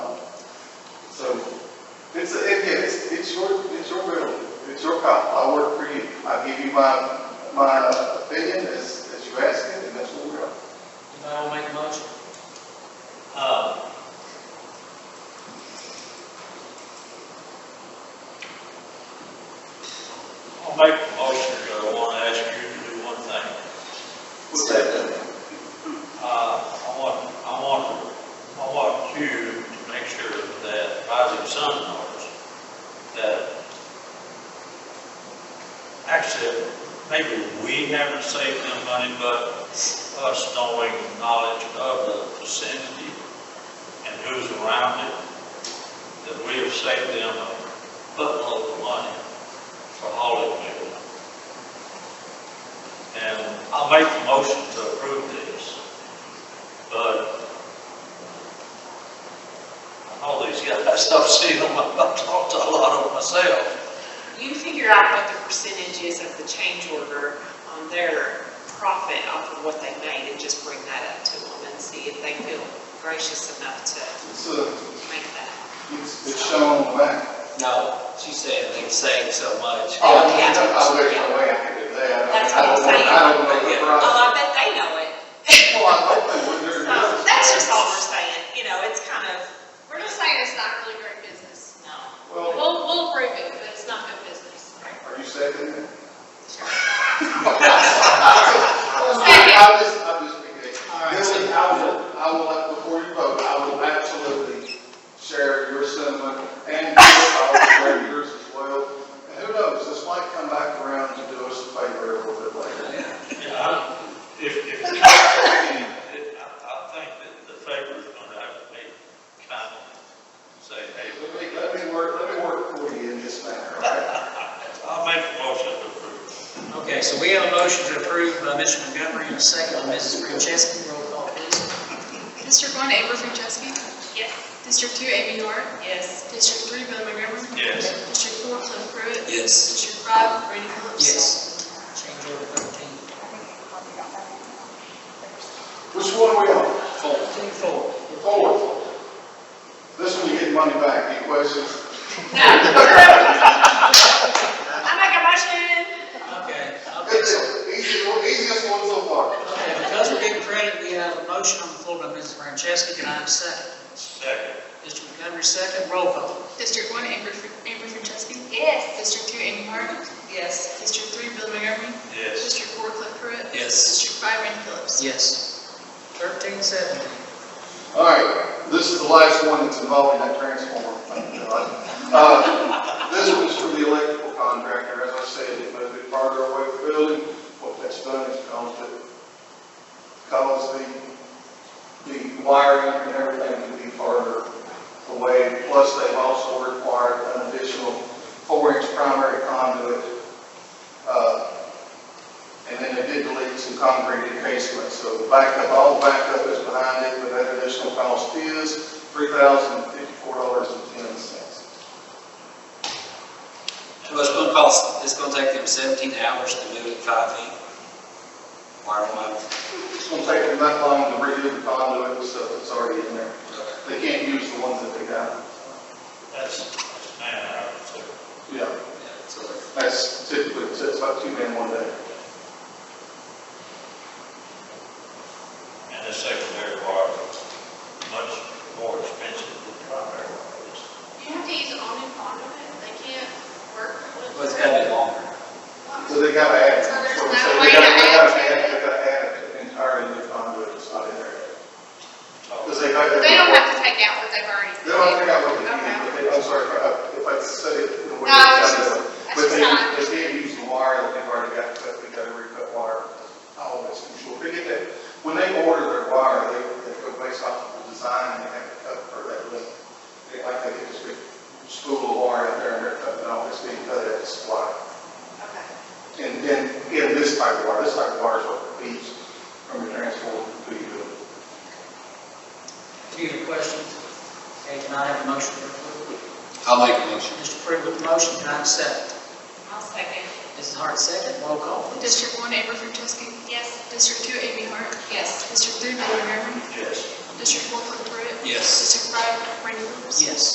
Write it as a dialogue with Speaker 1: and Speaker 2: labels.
Speaker 1: It's, it, yeah, it's, it's your, it's your bill, it's your call, I work for you, I give you my, my opinion as, as you ask it, and that's what we're on.
Speaker 2: Anybody want to make a motion? Uh, I'll make a motion, but I want to ask you to do one thing.
Speaker 1: What's that?
Speaker 2: Uh, I want, I want, I want you to make sure that Rising Sun knows that actually, maybe we haven't saved them money, but us knowing knowledge of the vicinity and who's around it, that we have saved them a buttload of money for hauling fuel. And I'll make the motion to approve this. But uh, all these guys, I stopped seeing them, I've talked to a lot of them myself.
Speaker 3: You figure out what the percentage is of the change order on their profit off of what they made and just bring that up to them and see if they feel gracious enough to
Speaker 1: It's, uh,
Speaker 3: make that.
Speaker 1: it's, it's shown on the map.
Speaker 4: No, she said they saved so much.
Speaker 3: Oh, yeah.
Speaker 1: I wish I way I could do that.
Speaker 3: That's what I'm saying.
Speaker 1: I don't know, I don't know the
Speaker 4: Yeah.
Speaker 1: price.
Speaker 3: Oh, I bet they know it.
Speaker 1: Well, I hope they would, they're.
Speaker 3: So that's just all we're saying, you know, it's kind of,
Speaker 5: We're just saying it's not really great business.
Speaker 3: no.
Speaker 1: Well,
Speaker 5: We'll, we'll approve it, but it's not good business.
Speaker 1: Are you seconding it? I just, I just being
Speaker 4: right.
Speaker 1: Billy, I will, I will, before you vote, I will absolutely share your sentiment and I'll share yours as well. And who knows, this might come back around to do us a favor a little bit later.
Speaker 2: Yeah, I- If, if, I, I think that the favor is gonna have to be kind of say, hey,
Speaker 1: Let me, let me work, let me work for you in this matter, all right?
Speaker 2: I'll make a motion to approve.
Speaker 4: Okay, so we have a motion to approve by Mr. Montgomery and a second by Mrs. Franceschi. Roll call, please.
Speaker 6: District one, Amber Franceschi.
Speaker 3: Yes.
Speaker 6: District two, Amy York.
Speaker 3: Yes.
Speaker 6: District three, Bill Montgomery.
Speaker 2: Yes.
Speaker 6: District four, Cliff Pruitt.
Speaker 4: Yes.
Speaker 6: District five, Randy Phillips.
Speaker 4: Yes. Change order thirteen.
Speaker 1: Which one are we on?
Speaker 4: Fourteen, four.
Speaker 1: Four. This one you get money back, any questions?
Speaker 3: No. I make a motion.
Speaker 4: Okay, okay, so,
Speaker 1: Easiest, easiest one so far.
Speaker 4: okay, because we're getting credit, we have a motion on the floor by Mrs. Franceschi. Can I have a second?
Speaker 2: Second,
Speaker 4: Mr. Montgomery, second. Roll call.
Speaker 6: District one, Amber, Fr- Amber Franceschi.
Speaker 3: Yes.
Speaker 6: District two, Amy York.
Speaker 3: Yes.
Speaker 6: District three, Bill Montgomery.
Speaker 2: yes.
Speaker 6: District four, Cliff Pruitt.
Speaker 4: Yes.
Speaker 6: District five, Randy Phillips.
Speaker 4: Yes. Thirteen seventeen.
Speaker 1: All right, this is the last one that's involving that transformer. Thank God. Uh, This one's for the electrical contractor, as I said, it moved it farther away from the building. What that's done is caused it, caused the, the wiring and everything to be farther away. Plus, they've also required an additional four-inch primary conduit. uh, and then they did delete some concrete encasement, so the backup, all the backup is behind it, but that additional cost is three thousand fifty-four dollars and ten cents.
Speaker 4: Well, it's gonna cost, it's gonna take them seventeen hours to do it five feet. Wiring wire.
Speaker 1: It's gonna take them that long to redo the conduit and stuff that's already in there. They can't use the ones that they got.
Speaker 2: That's, that's man hours, so.
Speaker 1: Yeah.
Speaker 4: Yeah, so they're-
Speaker 1: That's typically, so it's about two men one day.
Speaker 2: And the secondary wire is much more expensive than the primary wire is.
Speaker 5: You have to use on and on of it, they can't work with.
Speaker 4: Well, it's gotta be longer.
Speaker 1: So they gotta add.
Speaker 5: So there's
Speaker 1: so
Speaker 5: no
Speaker 1: they
Speaker 5: way to
Speaker 1: gotta- they
Speaker 5: add
Speaker 1: gotta
Speaker 5: to it?
Speaker 1: They gotta add an entire new conduit that's not in there.
Speaker 2: So-
Speaker 1: Because they. got-
Speaker 5: They don't have to take out what they've already.
Speaker 1: They don't think I would,
Speaker 5: Okay.
Speaker 1: I'm sorry if I- if I said it in a way.
Speaker 5: No, I was
Speaker 1: that-
Speaker 5: just- I
Speaker 1: But
Speaker 5: was just
Speaker 1: they,
Speaker 5: not-
Speaker 1: but they use the wire, that they've already got, cut. they gotta recut wire, all this control. They get that, when they order their wire, they, they go based off of the design, and they have to cut for that length. They like, they get this big spool of wire out there, and they're cutting all this, being cut at the supply.
Speaker 5: Okay.
Speaker 1: And then, in this type of wire, this type of wire is what feeds from the transformer to you.
Speaker 4: Any other questions? Okay, can I have a motion to approve?
Speaker 7: I'll make a motion.
Speaker 4: Mr. Pruitt with the motion, can I have a second?
Speaker 3: I'll second.
Speaker 4: Mrs. Hart, second. Roll call, please.
Speaker 6: District one, Amber Franceschi.
Speaker 5: Yes.
Speaker 6: District two, Amy York.
Speaker 3: Yes.
Speaker 6: District three, Bill Montgomery.
Speaker 2: Yes.
Speaker 6: District four, Cliff Pruitt.
Speaker 4: Yes.
Speaker 6: District five, Randy Phillips.
Speaker 4: Yes.